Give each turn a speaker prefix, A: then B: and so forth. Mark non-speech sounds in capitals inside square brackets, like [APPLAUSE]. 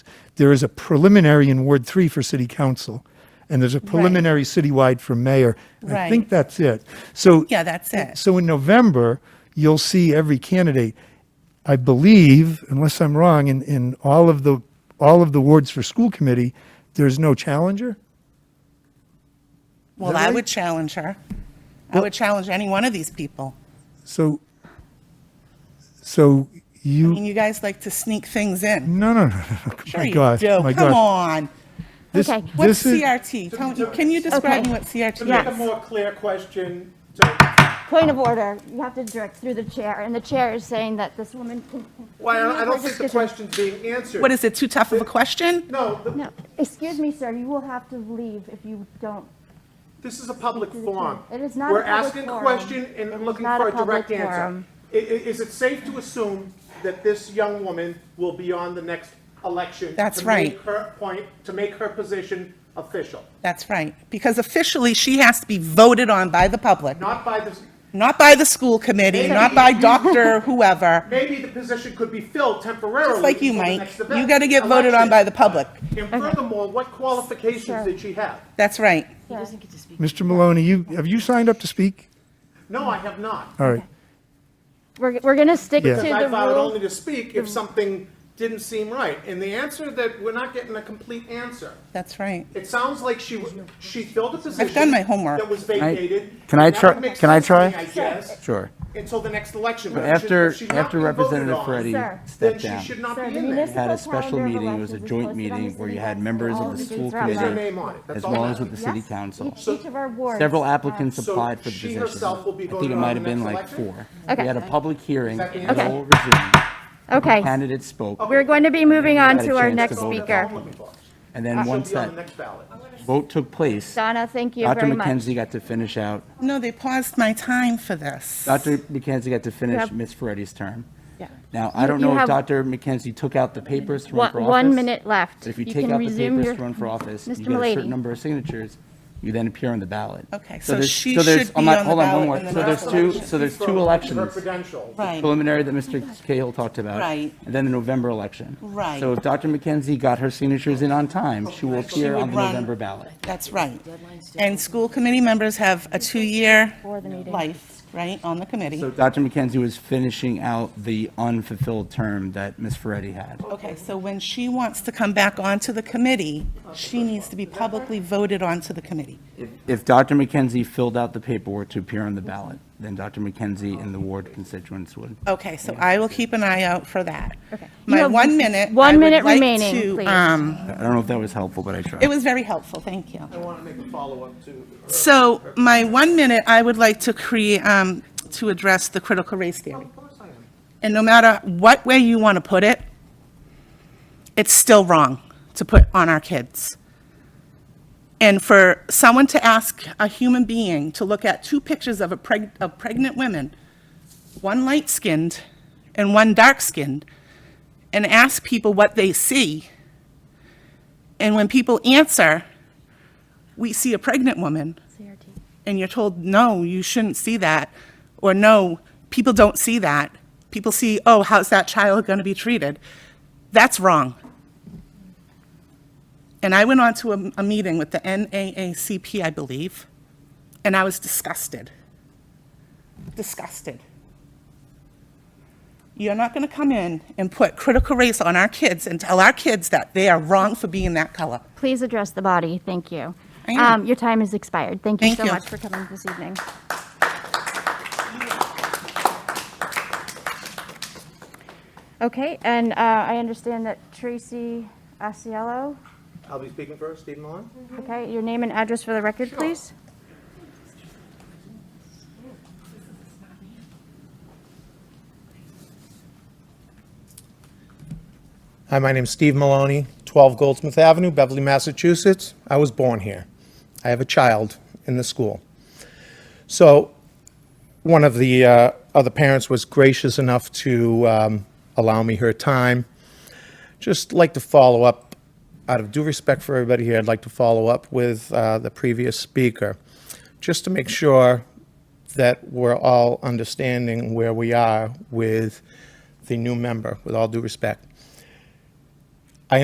A: there is a preliminary in Ward 3 for city council, and there's a preliminary citywide for mayor. I
B: Right.
A: think that's it. So.
B: Yeah, that's it.
A: So in November, you'll see every candidate. I believe, unless I'm wrong, in, in all of the, all of the wards for school committee, there's no challenger?
B: Well,
A: that
B: I
A: right?
B: would challenge her. I would challenge any one of these people.
A: So, so
B: I
A: you,
B: mean, you guys like to sneak things in.
A: no, no, no, no, [LAUGHS] no.
B: Sure
A: my
B: you
A: God,
B: do.
A: my
B: Come
A: God.
B: on.
A: This-
C: Okay.
B: What's
A: this is-
B: CRT? Tell me- Can you describe
C: Okay.
B: me what CRT
D: To
B: is?
D: make a more clear question, so,
C: Point of order, you have to direct through the chair, and the chair is saying that this woman can.
D: well, I don't- I don't think the question's being answered.
B: What, is it too tough of a question?
D: No, the-
C: No, excuse me, sir, you will have to leave if you don't.
D: this is a public forum.
C: It is not a
D: We're
C: public
D: asking a
C: forum.
D: question and
C: It
D: I'm
C: is
D: looking
C: not
D: for
C: a
D: a direct
C: public
D: answer.
C: forum.
D: I- i- Is it safe to assume that this young woman will be on the next election?
B: That's
D: To
B: right.
D: make her point, to make her position official,
B: That's right. Because officially, she has to be voted on by the public,
D: not by the,
B: not by the school committee, not by Dr. whoever.
D: maybe the position could be filled temporarily.
B: Just like you,
D: until the
B: Mike.
D: next event-
B: You gotta get voted on by the public.
D: And furthermore, what qualifications did she have?
B: That's right.
A: Mr. Maloney, you, have you signed up to speak?
D: No, I have not.
A: All right.
C: We're, we're going to stick to
A: Yeah.
C: the
D: Because I vowed only
C: rule.
D: to speak if something didn't seem right. And the answer that, we're not getting a complete answer.
B: That's right.
D: It sounds like she, w- she filled a position.
B: I've done my homework.
D: That was vacated.
E: can I
D: That
E: try-
D: would make
E: can I
D: sense to me,
E: try?
D: I guess.
E: Sure.
D: Until the next election.
E: But
D: If she-
E: after,
D: if she's not
E: after
D: being voted
E: Representative
D: on,
E: Ferretti
C: Sir.
D: Then
E: stepped
D: she
E: down,
D: should not
C: Sir,
D: be
C: the
D: in there.
E: you had
C: municipal
E: a special
C: calendar of
E: meeting, it was
C: elections
E: a
C: is posted
E: joint
C: on
E: meeting
C: the
E: where
C: city
E: you had
C: website.
E: members
C: All
E: of
C: the
E: the school
C: dates are on there.
E: committee,
D: name on it. That's
E: as
D: all
E: well
D: that
E: as with the
D: matters.
E: city
C: Yes,
E: council.
C: each- Each of our wards.
E: Several
C: uh,
E: applicants
D: So
E: applied for the
D: she
E: position.
D: herself will be
E: I think
D: voted
E: it
D: on
E: might
D: in
E: have
D: the
E: been
D: next
E: like
D: election?
E: four.
C: Okay.
E: We had a public hearing,
D: that the
E: it
D: answer?
E: all resumed,
C: Okay,
E: candidates spoke,
C: we're going to be moving on
E: Had a
C: to our
E: chance to
C: next
E: vote.
C: speaker.
D: I'm looking for.
E: and then
D: She'll
E: once
D: be on the
E: that
D: next ballot.
E: vote took place,
C: Donna, thank you
E: Dr.
C: very much.
E: McKenzie got to finish out,
B: No, they paused my time for this.
E: Dr. McKenzie got to finish
C: have-
E: Ms. Ferretti's term.
B: Yeah.
E: Now, I don't
C: you
E: know if
C: have-
E: Dr. McKenzie took out the papers to run
C: One
E: for office.
C: one minute left.
E: But if you take
C: can
E: out the
C: resume
E: papers
C: your-
E: to run for office, you
C: Mr.
E: get a
C: Milady.
E: certain number of signatures, you then appear on the ballot.
B: Okay, so
E: there's-
B: she
E: there's-
B: should
E: I'm
B: be
E: not-
B: on the
E: hold one
B: ballot
E: more.
B: in the
E: So there's
B: next
E: two,
B: election.
E: so there's
D: Her
E: two elections,
D: credentials.
B: Right.
E: preliminary that Mr. Cahill talked about.
B: Right.
E: And then the November election.
B: Right.
E: So if Dr. McKenzie got her signatures in on time, she will appear
B: would
E: on the
B: run.
E: November ballot.
B: That's right. And school committee members have a two-year life, right, on the committee.
E: So Dr. McKenzie was finishing out the unfulfilled term that Ms. Ferretti had.
B: Okay, so when she wants to come back onto the committee, she needs to be publicly voted onto the committee.
E: If- If Dr. McKenzie filled out the paperwork to appear on the ballot, then Dr. McKenzie and the ward constituents would.
B: Okay, so I will keep an eye out for that.
C: Okay. You
B: My
C: have
B: one minute. I
C: one
B: would
C: minute
B: like
C: remaining,
B: to,
C: please.
B: um,
E: I don't know if that was helpful, but I tried.
B: It was very helpful, thank you.
D: I want to make a follow-up to. her.
B: So my one minute, I would like to create, um, to address the critical race theory.
D: Of course I am.
B: And no matter what way you want to put it, it's still wrong to put on our kids. And for someone to ask a human being to look at two pictures of a preg- of pregnant women, one light-skinned and one dark-skinned, and ask people what they see. And when people answer, we see a pregnant woman, and you're told, no, you shouldn't see that, or no, people don't see that. People see, oh, how's that child going to be treated? That's wrong. And I went on to a, a meeting with the NAACP, I believe, and I was disgusted. Disgusted. You're not going to come in and put critical race on our kids and tell our kids that they are wrong for being that color.
C: Please address the body, thank you.
B: I am.
C: Um, Your time has expired. Thank you
B: Thank
C: so
B: you.
C: much for coming this evening. Okay, and uh, I understand that Tracy Asiello,
D: I'll be speaking first, Stephen Mullen.
C: okay, your name and address for the record, please?
D: Hi, my name's Steve Maloney, 12 Goldsmith Avenue, Beverly, Massachusetts. I was born here. I have a child in the school. So one of the uh, other parents was gracious enough to um, allow me her time. Just like to follow up, out of due respect for everybody here, I'd like to follow up with uh, the previous speaker, just to make sure that we're all understanding where we are with the new member, with all due respect.